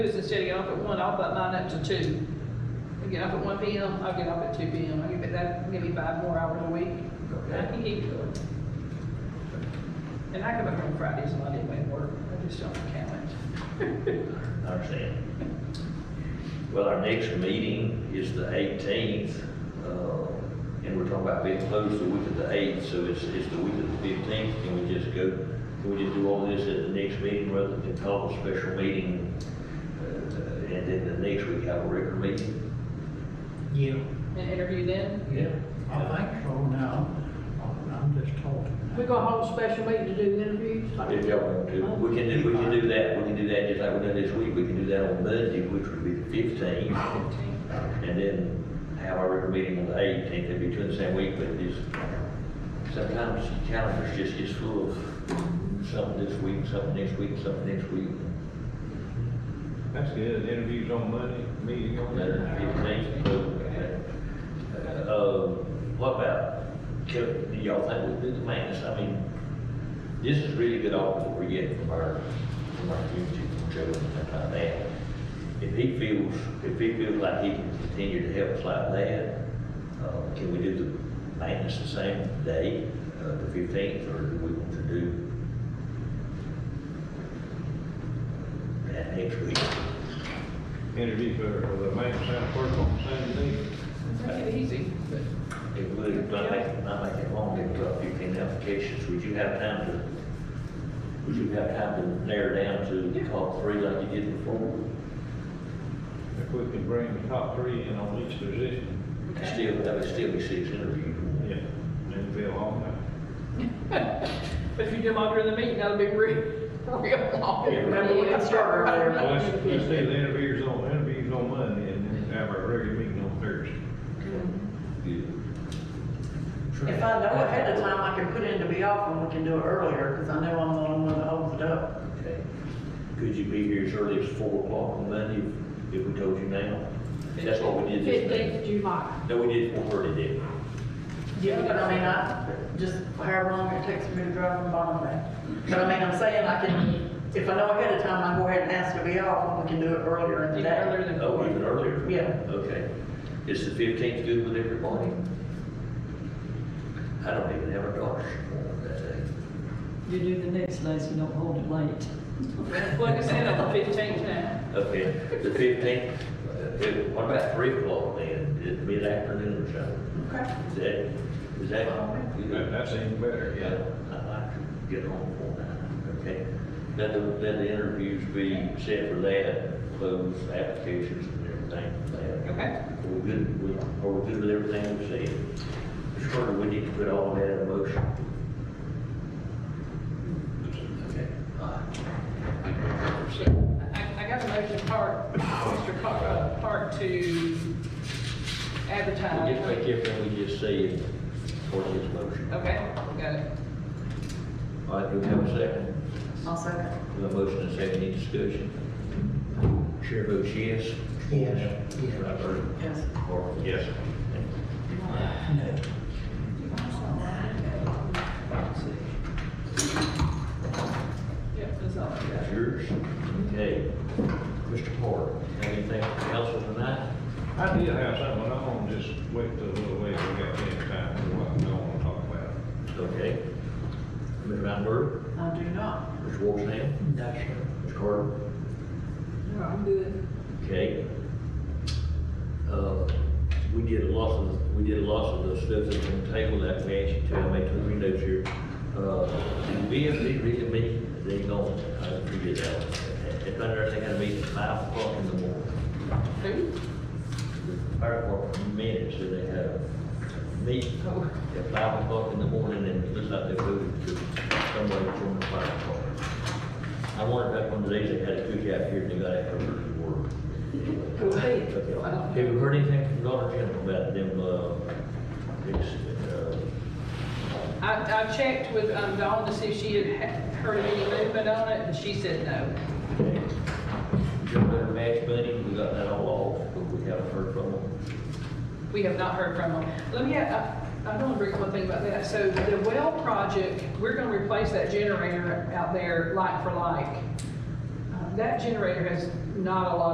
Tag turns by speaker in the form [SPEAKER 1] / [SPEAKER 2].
[SPEAKER 1] Because Instead of getting off at one, I'll put mine up to two. I get off at one P M, I'll get off at two P M. I give it, that, give me five more hours a week. I can keep going. And I come back on Fridays and I didn't make work. I just don't count it.
[SPEAKER 2] I understand. Well, our next meeting is the eighteenth, uh, and we're talking about being closed the week of the eighth, so it's, it's the week of the fifteenth. Can we just go, can we just do all this at the next meeting rather than call a special meeting? uh, And then the next week have a regular meeting?
[SPEAKER 3] Yeah,
[SPEAKER 1] And interview then.
[SPEAKER 3] yeah, I think so now, I'm- I'm just talking.
[SPEAKER 4] We're gonna hold a special meeting to do interviews. like-
[SPEAKER 2] If y'all want to, we can do, we can do that, we can do that just like we done this week. We can do that on Monday, which would be the fifteenth. And then have our regular meeting on the eighteenth, it'd be two in the same week, but it's, sometimes the calendar's just, it's full of something this week, something next week, something next week.
[SPEAKER 5] That's good, interviews on Monday, meeting on
[SPEAKER 2] Better
[SPEAKER 5] Monday.
[SPEAKER 2] than fifteenth, so, uh, what about, can, do y'all think we do the maintenance, I mean, this is really good offer we're getting from our, from our community, from Joe and stuff like that. If he feels, if he feels like he can continue to help us like that, uh, can we do the maintenance the same day, uh, the fifteenth, or do we want to do that next week?
[SPEAKER 5] Interview for, for uh, the maintenance staff work on Saturday.
[SPEAKER 1] Make it easy, but
[SPEAKER 2] It would, not make, not make it long, it would drop fifteen applications, would you have time to, would you have time to narrow down to the top three like you did before?
[SPEAKER 5] If we can bring the top three in on each position,
[SPEAKER 2] Still, that would still be six interviews.
[SPEAKER 5] yeah, then be a long night.
[SPEAKER 1] but if you do them all during the meeting, that'll be real, real long.
[SPEAKER 5] Yeah.
[SPEAKER 4] Remember, we can start earlier. Oh,
[SPEAKER 5] Well, Let's, let's do the interviews on, interviews on Monday and then have our regular meeting on Thursday.
[SPEAKER 4] If I know ahead of time, I can put in to be off and we can do it earlier, because I know I'm the only one that holds it up.
[SPEAKER 2] Okay. Could you be here as early as four o'clock on Monday if- if we told you now? That's what we did this
[SPEAKER 6] Fifteenth
[SPEAKER 2] day.
[SPEAKER 6] of July.
[SPEAKER 2] No, we did four thirty, didn't we?
[SPEAKER 4] Yeah, but I mean, I, just however long it takes me to drive from Bottom Bay. But I mean, I'm saying I can, if I know ahead of time, I go ahead and ask to be off and we can do it earlier in the
[SPEAKER 1] Even
[SPEAKER 4] day.
[SPEAKER 1] earlier than
[SPEAKER 2] Oh, even
[SPEAKER 1] four.
[SPEAKER 2] earlier?
[SPEAKER 4] Yeah.
[SPEAKER 2] Okay. Is the fifteenth good with everybody? I don't even have a doctor's appointment that day.
[SPEAKER 7] You do the next day, so you don't hold it late.
[SPEAKER 1] Like I said, on the fifteenth now.
[SPEAKER 2] Okay, the fifteenth, uh, what about three o'clock then, Is it mid-afternoon or something?
[SPEAKER 4] Okay.
[SPEAKER 2] Is that, is that?
[SPEAKER 5] That, that's even better,
[SPEAKER 2] Yeah,
[SPEAKER 5] yeah.
[SPEAKER 2] I'd like to get home for that, okay? Let the, let the interviews be set for that, close applications and everything for that.
[SPEAKER 1] Okay.
[SPEAKER 2] Are we good, with- are we good with everything we said? Mr. Carter, we need to put all that in motion. Okay, all right.
[SPEAKER 1] I, I got a motion part, Mr. Car, uh, part to
[SPEAKER 2] We'll Just
[SPEAKER 1] advertise.
[SPEAKER 2] make everything we just said for this motion.
[SPEAKER 1] Okay, we got it.
[SPEAKER 2] All right, do we have a second?
[SPEAKER 4] I'll second.
[SPEAKER 2] We have a motion and a second, any discussion? Chair votes yes.
[SPEAKER 3] Yes.
[SPEAKER 2] Right, Bert?
[SPEAKER 4] Yes.
[SPEAKER 2] Or, yes.
[SPEAKER 1] Yep, that's all I got.
[SPEAKER 2] That's yours. Okay. Mr. Porter, have anything for council tonight?
[SPEAKER 5] I did have something, but I'm gonna just wait till a little ways we got the time, what I don't wanna talk about.
[SPEAKER 2] Okay. Ms. Rappert,
[SPEAKER 4] I do not.
[SPEAKER 2] Mr. Wolfson,
[SPEAKER 3] That's it.
[SPEAKER 2] Mr. Carter?
[SPEAKER 6] No, I'm good.
[SPEAKER 2] Okay. Uh, We did a lot of, we did a lot of the stuff that's on the table that we asked you to, I made two three notes here. Uh, The VFD really meet, they don't, I figured out, if I understand, they gotta meet at five o'clock in the morning.
[SPEAKER 1] Who?
[SPEAKER 2] The Fire department minutes, so they have a meeting
[SPEAKER 1] Oh.
[SPEAKER 2] at five o'clock in the morning, and it looks like they moved to somewhere from the fire department. I wondered back one of these, they had a cookout here, and they got out for the work.
[SPEAKER 1] Who, me?
[SPEAKER 2] uh, Have you heard anything from Dollar General about them, uh, ex- uh,
[SPEAKER 1] I, I checked with um, Dawn to see if she had ha- heard of any movement on it, and she said no.
[SPEAKER 2] general match money? We got that all off, but we haven't heard from them.
[SPEAKER 1] We have not heard from them. Let me, I, I don't agree with one thing about that. So the well project, we're gonna replace that Uh, generator out there like for like. Um, That generator has not a lot